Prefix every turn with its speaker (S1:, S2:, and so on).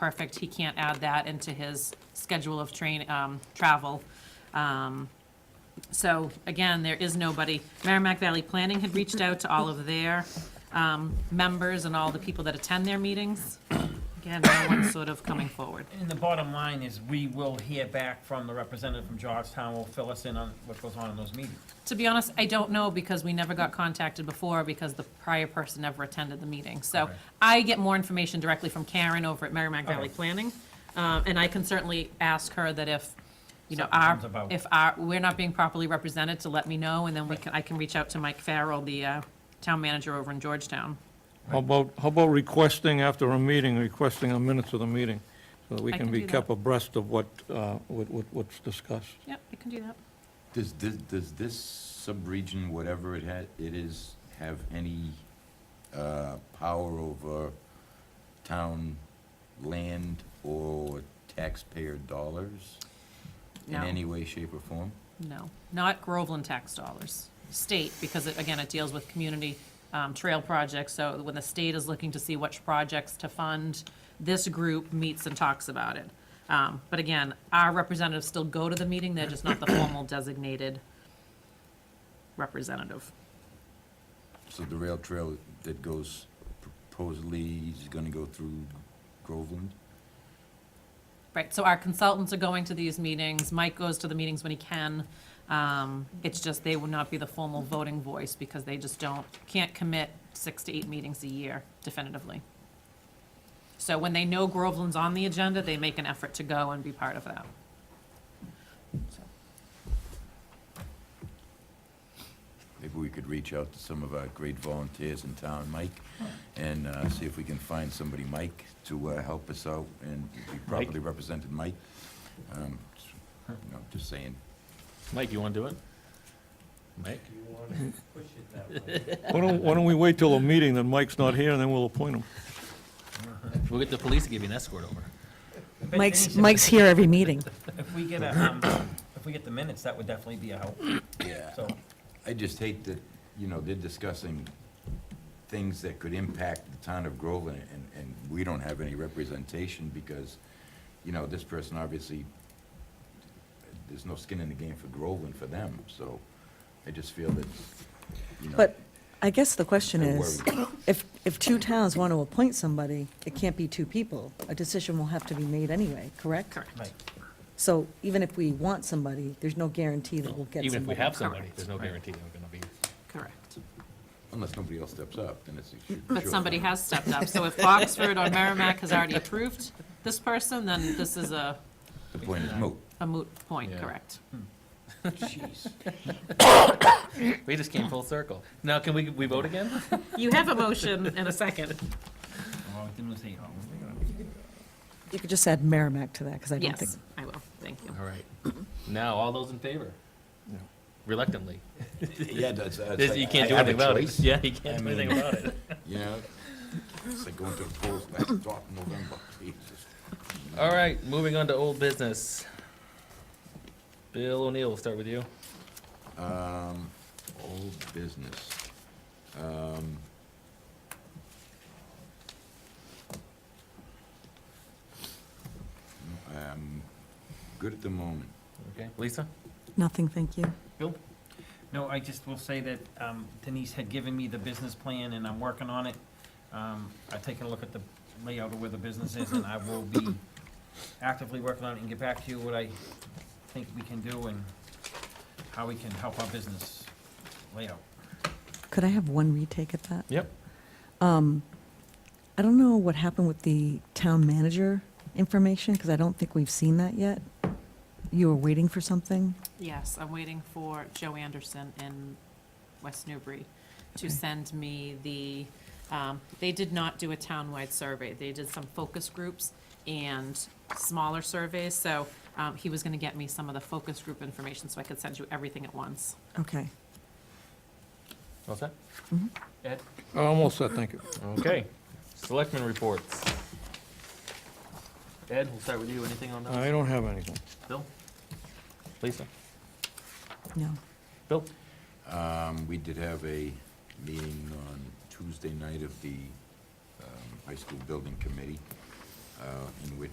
S1: perfect, he can't add that into his schedule of train, um, travel. Um, So again, there is nobody, Merrimack Valley Planning had reached out to all of their, um, members and all the people that attend their meetings. Again, no one's sort of coming forward.
S2: And the bottom line is, we will hear back from the representative from Georgetown, will fill us in on what goes on in those meetings.
S1: To be honest, I don't know because we never got contacted before because the prior person never attended the meeting. So
S2: Okay.
S1: I get more information directly from Karen over at Merrimack Valley
S2: Okay.
S1: Planning. uh, And I can certainly ask her that if, you know,
S2: Something
S1: our,
S2: comes about.
S1: if our, we're not being properly represented, to let me know. And then we can, I can reach out to Mike Farrell, the uh, town manager over in Georgetown.
S3: How about, how about requesting after a meeting, requesting a minutes of the meeting, so that we
S1: I
S3: can
S1: can
S3: be
S1: do that.
S3: kept abreast of what, uh, what, what- what's discussed?
S1: Yep, I can do that.
S4: Does, this- does this sub-region, whatever it ha it is, have any uh, power over town land or taxpayer dollars?
S1: No.
S4: In any way, shape, or form?
S1: No, not Groveland tax dollars. State, because it- again, it deals with community um, trail projects, so when the state is looking to see which projects to fund, this group meets and talks about it. Um, But again, our representatives still go to the meeting, they're just not the formal designated representative.
S4: So the rail trail that goes proposedly is gonna go through Groveland?
S1: Right, so our consultants are going to these meetings, Mike goes to the meetings when he can. Um, It's just they will not be the formal voting voice because they just don't, can't commit six to eight meetings a year definitively. So when they know Groveland's on the agenda, they make an effort to go and be part of that. So,
S4: Maybe we could reach out to some of our great volunteers in town, Mike, and uh, see if we can find somebody, Mike, to uh, help us out and be properly represented, Mike. Um, s- you know, Just saying.
S5: Mike, you want to do it? Mike?
S3: Why don't, why don't we wait till a meeting, then Mike's not here, and then we'll appoint him?
S5: We'll get the police to give you an escort over.
S2: But
S6: Mike's,
S2: any-
S6: Mike's here every meeting.
S2: If we get a, um, if we get the minutes, that would definitely be a help,
S4: Yeah.
S2: so.
S4: I just hate that, you know, they're discussing things that could impact the town of Groveland, and, and we don't have any representation because, you know, this person obviously, there's no skin in the game for Groveland for them, so I just feel that, you know.
S6: But I guess the question
S4: Don't
S6: is, if, if two towns want to appoint somebody, it can't be two people. A decision will have to be made anyway, correct?
S2: Right.
S6: So even if we want somebody, there's no guarantee that we'll get somebody.
S5: Even if we have somebody,
S1: Correct.
S5: there's no guarantee they're going to be.
S1: Correct.
S4: Unless somebody else steps up, then it's. a sure-
S1: But
S4: sure
S1: somebody
S4: thing.
S1: has stepped up, so if Oxford or Merrimack has already approved this person, then this is a
S4: The point is moot.
S1: a moot point,
S5: Yeah.
S1: correct?
S4: Jeez.
S5: We just came full circle. Now, can we, we vote again?
S1: You have a motion and a second.
S2: Well, it didn't say, oh,
S6: You could just add Merrimack to that, because I don't think.
S1: Yes, I will, thank you.
S5: All right. Now, all those in favor? Reluctantly.
S4: Yeah, that's, that's.
S5: This- You can't do anything about it. Yeah, you can't do
S4: I
S5: anything
S4: mean-
S5: about it.
S4: You know, it's like going to the polls last drop in November, Jesus.
S5: All right, moving on to old business. Bill O'Neill, we'll start with you.
S4: Um, old business. Um. I'm good at the moment.
S5: Okay, Lisa?
S6: Nothing, thank you.
S2: No, I just will say that um, Denise had given me the business plan, and I'm working on it. Um, I've taken a look at the layout of where the business is, and I will be actively working on it and get back to you what I think we can do and how we can help our business layout.
S6: Could I have one retake at that?
S5: Yep.
S6: Um, I don't know what happened with the town manager information, because I don't think we've seen that yet. You were waiting for something?
S1: Yes, I'm waiting for Joe Anderson in West Newbury to
S6: Okay.
S1: send me the, um, they did not do a townwide survey. They did some focus groups and smaller surveys, so um, he was going to get me some of the focus group information so I could send you everything at once.
S6: Okay.
S5: What's that? Ed?
S3: I'm all set, thank you.
S5: Okay. Selectmen reports. Ed, we'll start with you. Anything on
S3: I
S5: those?
S3: don't have anything.
S5: Bill? Lisa?
S6: No.
S5: Bill?
S4: Um, we did have a meeting on Tuesday night of the, um, high school building committee. uh, in which